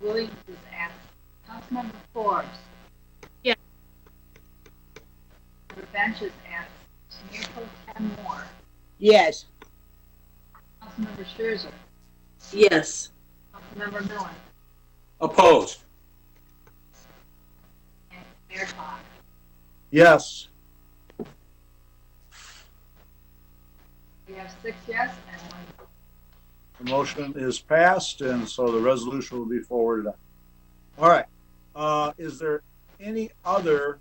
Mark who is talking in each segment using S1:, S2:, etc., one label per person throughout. S1: Williams is absent. Councilmember Forbes.
S2: Yes.
S1: Member Bench is absent. Mayor Pro Tem Moore.
S3: Yes.
S1: Councilmember Scherzer.
S4: Yes.
S1: Councilmember Miller.
S5: Opposed?
S1: And Mayor Fox.
S5: Yes.
S1: We have six yes and one no.
S5: The motion is passed, and so the resolution will be forwarded on. All right. Uh, is there any other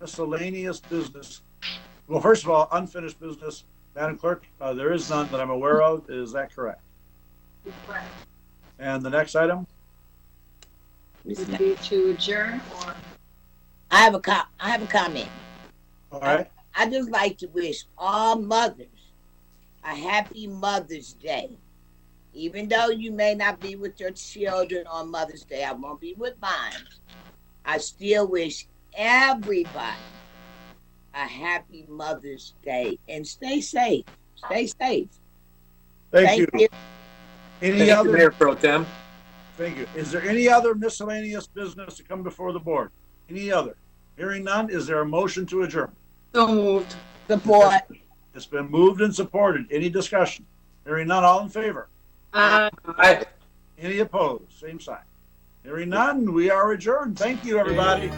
S5: miscellaneous business? Well, first of all, unfinished business, Madam Clerk, uh, there is none that I'm aware of. Is that correct?
S1: request.
S5: And the next item?
S1: Would be to adjourn or
S3: I have a com- I have a comment.
S5: All right.
S3: I just like to wish all mothers a happy Mother's Day. Even though you may not be with your children on Mother's Day, I won't be with mine. I still wish everybody a happy Mother's Day and stay safe. Stay safe.
S5: Thank you. Any
S6: Thank you,
S5: other,
S6: Mayor Pro Tem.
S5: thank you. Is there any other miscellaneous business to come before the board? Any other? Hearing none, is there a motion to adjourn?
S4: So moved.
S3: Support.
S5: It's been moved and supported. Any discussion? Hearing none, all in favor?
S4: Aye.
S6: Aye.
S5: Any opposed? Same sign. Hearing none, we are adjourned. Thank you, everybody.